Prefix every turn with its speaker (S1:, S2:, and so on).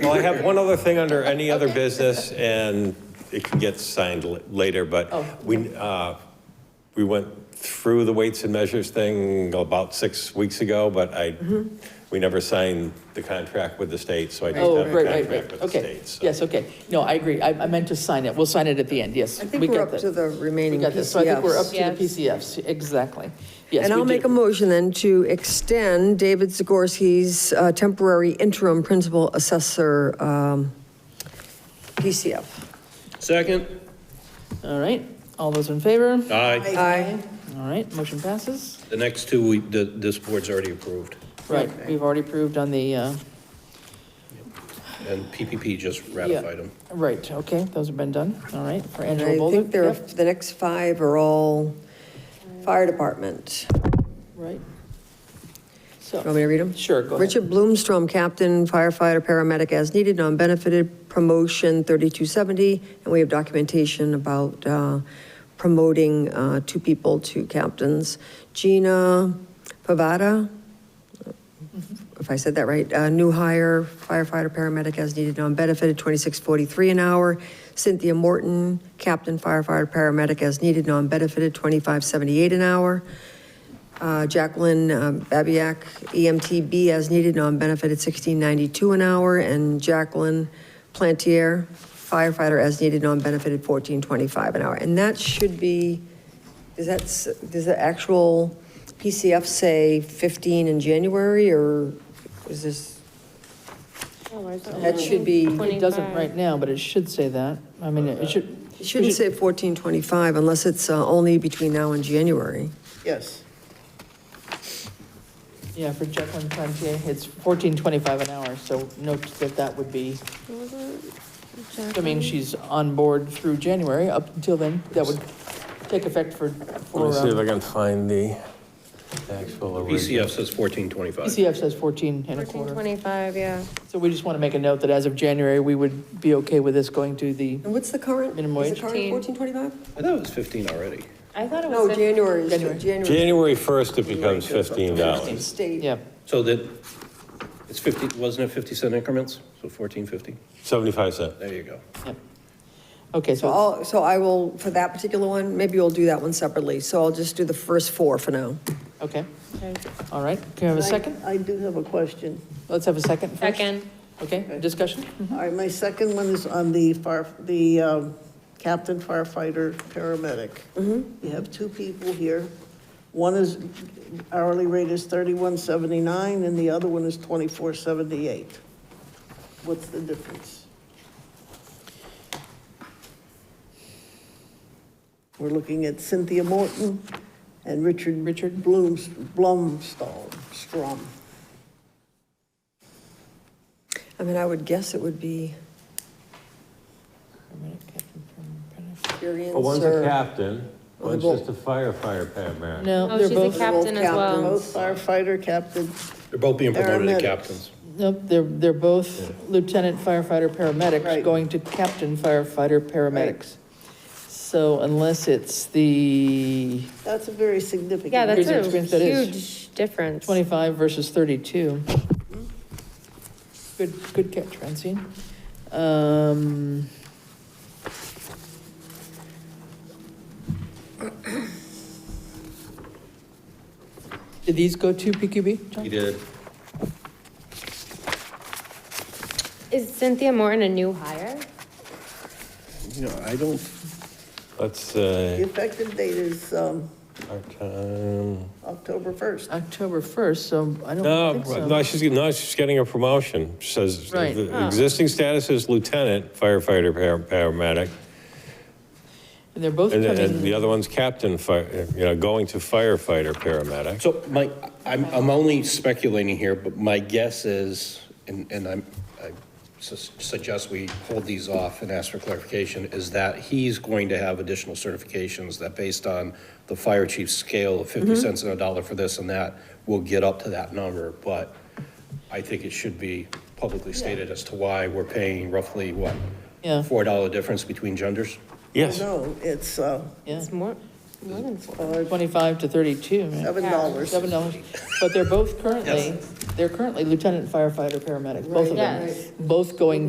S1: Well, I have one other thing under any other business, and it can get signed l- later,
S2: Oh.
S1: but we, uh, we went through the weights and measures thing about six weeks ago, but I, we never signed the contract with the state, so I just
S2: Mm-hmm. Oh,
S1: have a
S2: right, right,
S1: contract
S2: right,
S1: with the
S2: okay.
S1: state. so-
S2: Yes, okay. No, I agree. I, I meant to sign it. We'll sign it at the end, yes.
S3: I think
S2: We
S3: we're
S2: got
S3: up
S2: that.
S3: to the
S2: We
S3: remaining
S2: got this, so I think we're up to
S3: PCFs.
S2: the PCFs, exactly. Yes,
S3: And
S2: we
S3: I'll
S2: did.
S3: make a motion then to extend David Zagorski's uh, temporary interim principal assessor um, PCF.
S4: Second?
S2: All right, all those in favor?
S4: Aye.
S3: Aye.
S2: All right, motion passes.
S4: The next two, we, the, this board's already approved,
S2: Right, we've already approved on the, uh,
S4: and PPP just ratified them.
S2: right, okay, those have been done, all right, for
S3: And
S2: Angela
S3: I
S2: Bolduc.
S3: think there,
S2: Yep,
S3: the next five are all fire department.
S2: Right. So.
S3: Want me to read them?
S2: Sure, go ahead.
S3: Richard Bloomstrom, captain, firefighter, paramedic as needed, non-benefited, promotion 3270. And we have documentation about uh, promoting uh, two people to captains. Gina Pavada,
S2: Mm-hmm.
S3: if I said that right, uh, new hire firefighter, paramedic as needed, non-benefited, 2643 an hour. Cynthia Morton, captain, firefighter, paramedic as needed, non-benefited, 2578 an hour. Uh, Jacqueline um, Babiak, E EMTB as needed, non-benefited, 1692 an hour, and Jacqueline Plantier, firefighter as needed, non-benefited, 1425 an hour. And that should be, does that, s- does the actual PCF say 15 in January, or is this,
S5: Oh,
S3: that should be,
S2: It doesn't right now, but it should say that. I mean, it should.
S3: it shouldn't say 1425 unless it's uh, only between now and January.
S6: Yes.
S2: Yeah, for Jacqueline Plantier, it's fourteen twenty-five an hour, so note that that would be, I mean, she's on board through January, up until then, that would take effect for, for,
S1: Let me see if I
S2: um,
S1: can find the actual original.
S4: PCF says fourteen twenty-five.
S2: PCF E says fourteen and a quarter.
S5: 1425, yeah.
S2: So we just want to make a note that as of January, we would be okay with this going to the,
S3: And what's the current?
S2: Minimum
S3: Is
S2: wage?
S3: the current 1425?
S4: I thought it was fifteen already.
S5: I thought it was.
S3: No, January, is-
S2: January.
S3: January.
S1: January 1st, it becomes $15.
S3: State.
S2: yeah,
S4: So that, it's fifty, wasn't it fifty cent increments? So fourteen fifty?
S1: 75 cent.
S4: There you go.
S2: yeah. Okay,
S3: So
S2: so,
S3: I'll, so I will, for that particular one, maybe we'll do that one separately. So I'll just do the first four for now.
S2: okay, all right, can we have a second?
S6: I do have a question.
S2: Let's have a second first.
S5: Second.
S2: Okay, discussion?
S6: All right, my second one is on the fire, the um, captain firefighter paramedic. You have two people here. One is hourly rate is thirty-one seventy-nine, and the other one is twenty-four seventy-eight. What's the difference? We're looking at Cynthia Morton and Richard.
S2: Richard.
S6: Blooms, Blumstall, Strom.
S3: I mean, I would guess it would be experience
S1: Well, one's a
S3: or.
S1: captain,
S3: Well,
S1: one's
S3: they're
S1: just a firefighter paramedic.
S2: No,
S5: Oh,
S2: they're
S5: she's a
S2: both,
S5: captain as well.
S6: Both firefighter captain.
S4: They're both being promoted
S6: Paramedics.
S4: to captains.
S2: nope, they're, they're both lieutenant firefighter paramedics
S6: Right.
S2: going to captain firefighter paramedics. So unless it's the
S6: That's a very significant.
S5: Yeah, that's
S2: Here's the
S5: a
S2: experience that is.
S5: huge difference.
S2: 25 versus 32. Good, good catch, Francine. Um, Did these go to PQB, John?
S4: He did.
S5: Is Cynthia Morton a new hire?
S4: You know, I don't,
S1: Let's uh, say.
S6: The effective date is um,
S1: Part-time.
S6: October 1st.
S2: October 1st, so I
S1: No,
S2: don't think so.
S1: no, she's, no, she's getting a promotion. She Says,
S2: Right. Ah.
S1: the existing status is lieutenant firefighter par- paramedic.
S2: And they're both
S1: And
S2: coming.
S1: then and the other one's captain, fire, you know, going to firefighter paramedic.
S4: so my, I'm, I'm only speculating here, but my guess is, and, and I'm, I sus- suggest we hold these off and ask for clarification, is that he's going to have additional certifications that based on the fire chief's scale of 50 cents and a dollar for this and that, will get up to that number. But I think it should be publicly stated as to why we're paying roughly, what?
S2: Yeah.
S4: $4 difference between genders?
S1: Yes,
S6: No, it's, uh,
S2: Yeah.
S5: It's more, more than four.
S6: Uh,
S2: 25 to 32, man.
S6: Seven dollars.
S2: Seven dollars, but they're both currently, they're currently lieutenant firefighter, paramedic, both of them.
S5: Right. Yes.
S2: Both going